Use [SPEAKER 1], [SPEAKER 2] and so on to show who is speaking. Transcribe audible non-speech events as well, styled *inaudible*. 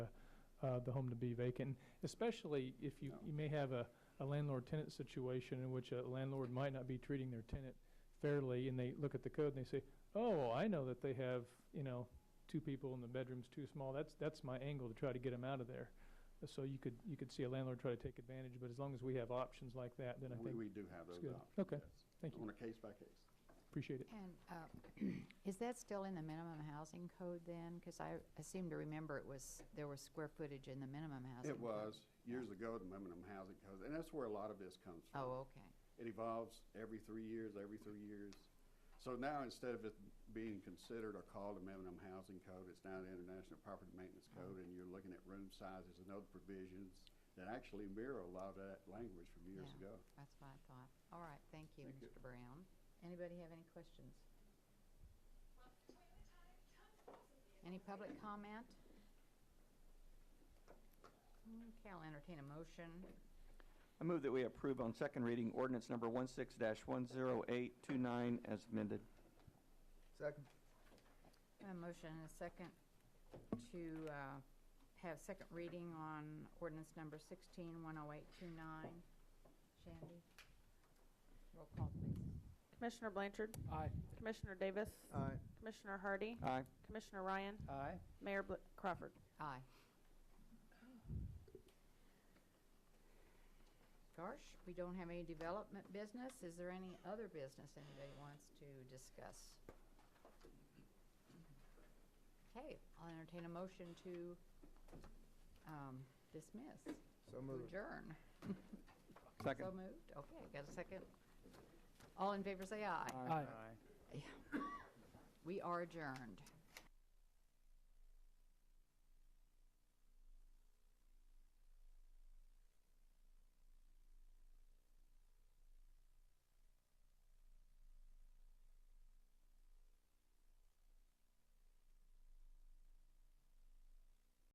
[SPEAKER 1] uh, the home to be vacant, especially if you, you may have a, a landlord-tenant situation in which a landlord might not be treating their tenant fairly, and they look at the code and they say, oh, I know that they have, you know, two people and the bedroom's too small, that's, that's my angle to try to get them out of there. So you could, you could see a landlord try to take advantage, but as long as we have options like that, then I
[SPEAKER 2] We,
[SPEAKER 1] think,
[SPEAKER 2] we do have those
[SPEAKER 1] good.
[SPEAKER 2] options.
[SPEAKER 1] Okay.
[SPEAKER 2] yes.
[SPEAKER 1] Thank you.
[SPEAKER 2] On a case by case.
[SPEAKER 1] appreciate it.
[SPEAKER 3] And uh, *clears throat* is that still in the minimum housing code then? Because I, I seem to remember it was, there was square footage in the minimum housing.
[SPEAKER 2] It
[SPEAKER 3] code.
[SPEAKER 2] was, years ago, the minimum housing code, and that's where a lot of this comes from.
[SPEAKER 3] Oh, okay.
[SPEAKER 2] It evolves every three years, every three years. So now, instead of it being considered or called a minimum housing code, it's now the International Property Maintenance
[SPEAKER 3] Oh.
[SPEAKER 2] Code, and you're looking at room sizes and other provisions that actually mirror a lot of that language from years
[SPEAKER 3] Yeah,
[SPEAKER 2] ago.
[SPEAKER 3] That's what I thought. All right, thank you,
[SPEAKER 2] Thank you.
[SPEAKER 3] Mr. Brown. Anybody have any questions? Any public comment? Okay, I'll entertain a motion.
[SPEAKER 4] I move that we approve on second reading ordinance number 16-10829 as amended.
[SPEAKER 5] Second.
[SPEAKER 3] A motion and a second to uh, have second reading on ordinance number 16-10829. Shandy? Roll call, please.
[SPEAKER 6] Commissioner Blanchard.
[SPEAKER 5] Aye.
[SPEAKER 6] Commissioner Davis.
[SPEAKER 5] Aye.
[SPEAKER 6] Commissioner Hardy.
[SPEAKER 4] Aye.
[SPEAKER 6] Commissioner Ryan.
[SPEAKER 5] Aye.
[SPEAKER 6] Mayor Bl- Crawford.
[SPEAKER 3] Aye. Gosh, we don't have any development business. Is there any other business anybody wants to discuss? Okay, I'll entertain a motion to um, dismiss,
[SPEAKER 5] So
[SPEAKER 3] to
[SPEAKER 5] moved.
[SPEAKER 3] adjourn. So
[SPEAKER 4] Second.
[SPEAKER 3] moved. Okay, got a second? All in favor, say aye.
[SPEAKER 4] Aye.
[SPEAKER 3] We are adjourned.